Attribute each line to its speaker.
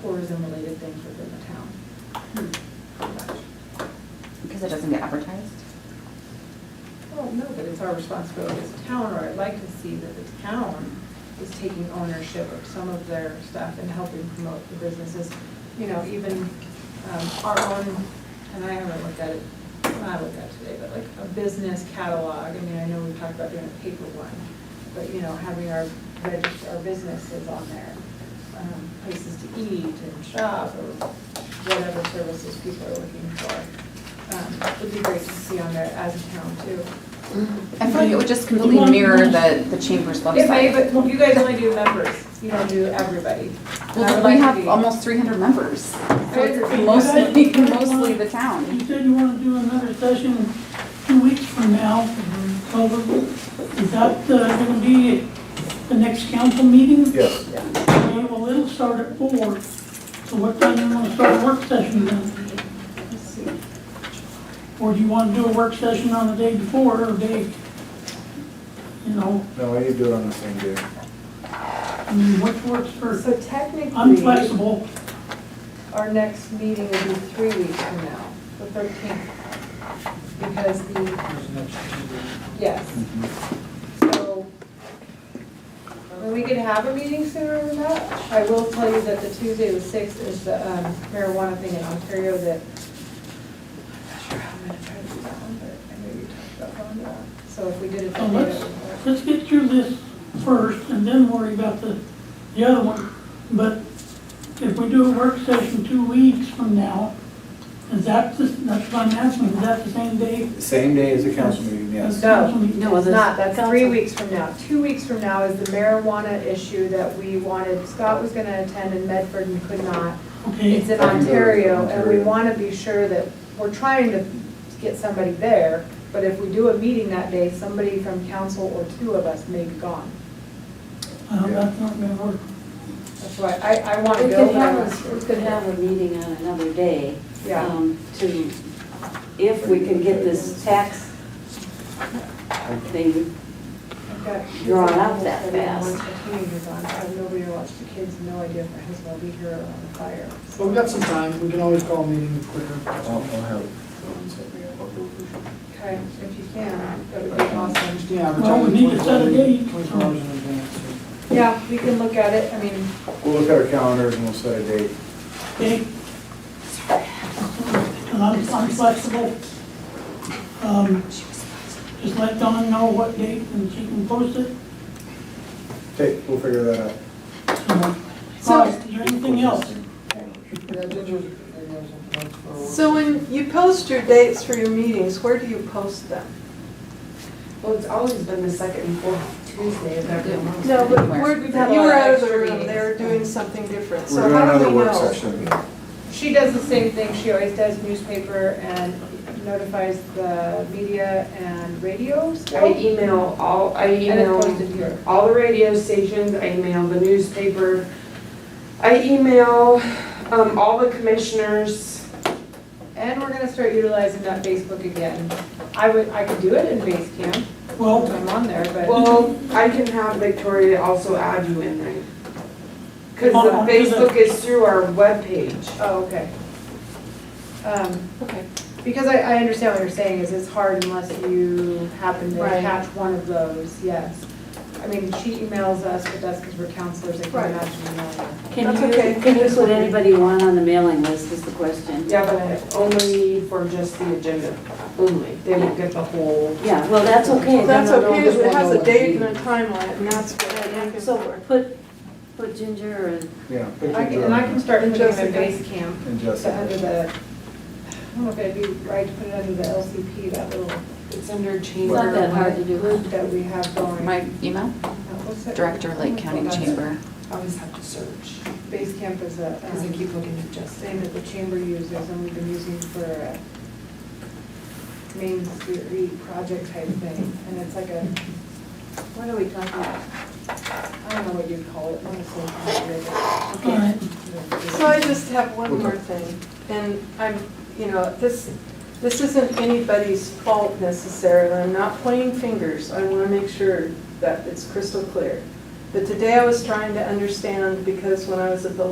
Speaker 1: tourism-related things within the town.
Speaker 2: Because it doesn't get advertised?
Speaker 1: Well, no, but it's our responsibility as a town, or I'd like to see that the town is taking ownership of some of their stuff and helping promote the businesses. You know, even um, our own, and I haven't looked at it, I looked at it today, but like a business catalog. I mean, I know we've talked about doing a paper one, but you know, having our, regist- our businesses on there. um, Places to eat and shop or whatever services people are looking for. Um, It'd be great to see on there as a town too.
Speaker 2: I feel like it would just completely mirror the, the chamber's
Speaker 1: It may,
Speaker 2: website.
Speaker 1: but you guys only do members, you don't do everybody. And I
Speaker 2: Well,
Speaker 1: would
Speaker 2: we
Speaker 1: like to
Speaker 2: have
Speaker 1: be-
Speaker 2: almost three hundred members.
Speaker 1: agree.
Speaker 2: So it's mostly, mostly the town.
Speaker 3: You said you want to do another session two weeks from now. So is that going to be at the next council meeting?
Speaker 4: Yes.
Speaker 3: Okay, Well, it'll start at four. So what time you want to start a work session then?
Speaker 1: Let's see.
Speaker 3: Or do you want to do a work session on the day before or day? You know,
Speaker 4: No, I need to do it on the same day.
Speaker 3: I mean, what works for,
Speaker 1: So
Speaker 3: I'm
Speaker 1: technically,
Speaker 3: flexible.
Speaker 1: our next meeting will be three weeks from now, the thirteenth. Because the, yes, so, and we could have a meeting sooner than that. I will tell you that the Tuesday, the sixth, is the um, marijuana thing in Ontario that, I'm not sure how I'm gonna try to do that one, but I know you talked about going to that. So if we did it that
Speaker 3: Oh,
Speaker 1: day,
Speaker 3: let's-
Speaker 1: that would work.
Speaker 3: Let's get through this first and then worry about the, the other one. But if we do a work session two weeks from now, is that, the- that's what I'm asking, is that the same day?
Speaker 4: Same day as the council meeting, yes.
Speaker 1: No.
Speaker 3: No.
Speaker 1: It's not, that's three weeks from now. Two weeks from now is the marijuana issue that we wanted, Scott was gonna attend in Medford and could not.
Speaker 3: Okay,
Speaker 1: It's in
Speaker 4: I can go to
Speaker 1: Ontario, and we
Speaker 4: Ontario.
Speaker 1: wanna be sure that, we're trying to get somebody there, but if we do a meeting that day, somebody from council or two of us may be gone.
Speaker 3: uh, that's not gonna work.
Speaker 1: That's why, I, I wanna
Speaker 5: We
Speaker 1: go,
Speaker 5: could
Speaker 1: but I'm not
Speaker 5: have, a- we could have a meeting on another day.
Speaker 1: Yeah.
Speaker 5: um, To, if we can get this tax thing,
Speaker 1: I've got kids
Speaker 5: Drawn
Speaker 1: at
Speaker 5: up
Speaker 1: home
Speaker 5: that
Speaker 1: studying
Speaker 5: fast.
Speaker 1: once the teenagers on, I have nobody to watch the kids, no idea if my husband will be here or on the fire.
Speaker 6: Well, we've got some time, we can always call a meeting quicker.
Speaker 4: I'll, I'll have, someone set me up. I'll go for sure.
Speaker 1: Okay, if you can, that would be awesome.
Speaker 6: Yeah, we're
Speaker 3: Well, we need to set a date.
Speaker 6: Twenty-four hours in advance.
Speaker 1: Yeah, we can look at it, I mean,
Speaker 4: We'll look at our calendars and we'll set a date.
Speaker 3: Okay? And I'm, I'm flexible. Um, Just let Dawn know what date and she can post it.
Speaker 4: Okay, we'll figure that out.
Speaker 3: All right, is there anything else?
Speaker 6: Yeah, Ginger, maybe have some notes for.
Speaker 7: So when you post your dates for your meetings, where do you post them?
Speaker 8: Well, it's always been the second and fourth Tuesday of every month.
Speaker 7: No, but where,
Speaker 1: We've had a
Speaker 7: you were
Speaker 1: lot of
Speaker 7: out of the
Speaker 1: extra
Speaker 7: room,
Speaker 1: meetings.
Speaker 7: they were doing something different,
Speaker 4: We're
Speaker 7: so
Speaker 4: doing
Speaker 7: how do
Speaker 4: another
Speaker 7: we
Speaker 4: work
Speaker 7: know?
Speaker 4: session.
Speaker 1: she does the same thing, she always does newspaper and notifies the media and radio
Speaker 8: I
Speaker 1: still.
Speaker 8: email all, I
Speaker 1: And it's
Speaker 8: email
Speaker 1: posted here.
Speaker 8: all the radio stations, I email the newspaper. I email, um, all the commissioners.
Speaker 1: And we're gonna start utilizing that Facebook again. I would, I could do it in Basecamp,
Speaker 3: Well,
Speaker 1: I'm on there, but
Speaker 8: Well, I can have Victoria also add you in there. Cause
Speaker 3: On-
Speaker 8: the
Speaker 3: onto the-
Speaker 8: Facebook is through our webpage.
Speaker 1: Oh, okay. Um,
Speaker 7: Okay.
Speaker 1: Because I, I understand what you're saying, is it's hard unless you happen to
Speaker 7: Right.
Speaker 1: catch one of those, yes. I mean, she emails us, but that's because we're counselors, I can
Speaker 7: Right.
Speaker 1: imagine emailing.
Speaker 5: can
Speaker 7: That's
Speaker 5: you,
Speaker 7: okay.
Speaker 5: can you put anybody you want on the mailing list is the question?
Speaker 8: Yeah, but only for just the agenda, only. They won't get the whole.
Speaker 5: Yeah, well, that's okay. then
Speaker 7: That's
Speaker 5: they'll know
Speaker 7: okay, if
Speaker 5: that
Speaker 7: it has
Speaker 5: we'll
Speaker 7: a
Speaker 5: know
Speaker 7: date and
Speaker 5: what
Speaker 7: a time on it, and that's what I'm
Speaker 5: to do.
Speaker 7: looking
Speaker 5: So
Speaker 7: for.
Speaker 5: put, put Ginger and,
Speaker 4: Yeah. pick
Speaker 1: I can,
Speaker 4: Ginger
Speaker 1: and I can start
Speaker 7: And
Speaker 1: putting it in
Speaker 7: Jessica.
Speaker 1: base camp,
Speaker 4: And
Speaker 1: so under
Speaker 4: Jessica.
Speaker 1: the, I don't know if it'd be right to put it under the LCP, that little
Speaker 8: It's under
Speaker 5: it's
Speaker 8: chamber.
Speaker 5: not that hard to do.
Speaker 1: group that we have going.
Speaker 2: My email,
Speaker 1: What's that?
Speaker 2: Director Lake County Chamber.
Speaker 8: I always have to search,
Speaker 1: Base camp is a,
Speaker 8: cause I
Speaker 1: um,
Speaker 8: keep looking at Justin.
Speaker 1: same that the chamber uses, and we've been using for a main street project type thing, and it's like a,
Speaker 5: What are we talking about?
Speaker 1: I don't know what you'd call it, honestly. I
Speaker 3: all right.
Speaker 1: don't know.
Speaker 7: So I just have one more thing, and I'm, you know, this, this isn't anybody's fault necessarily, I'm not pointing fingers, I want to make sure that it's crystal clear. But today I was trying to understand, because when I was at the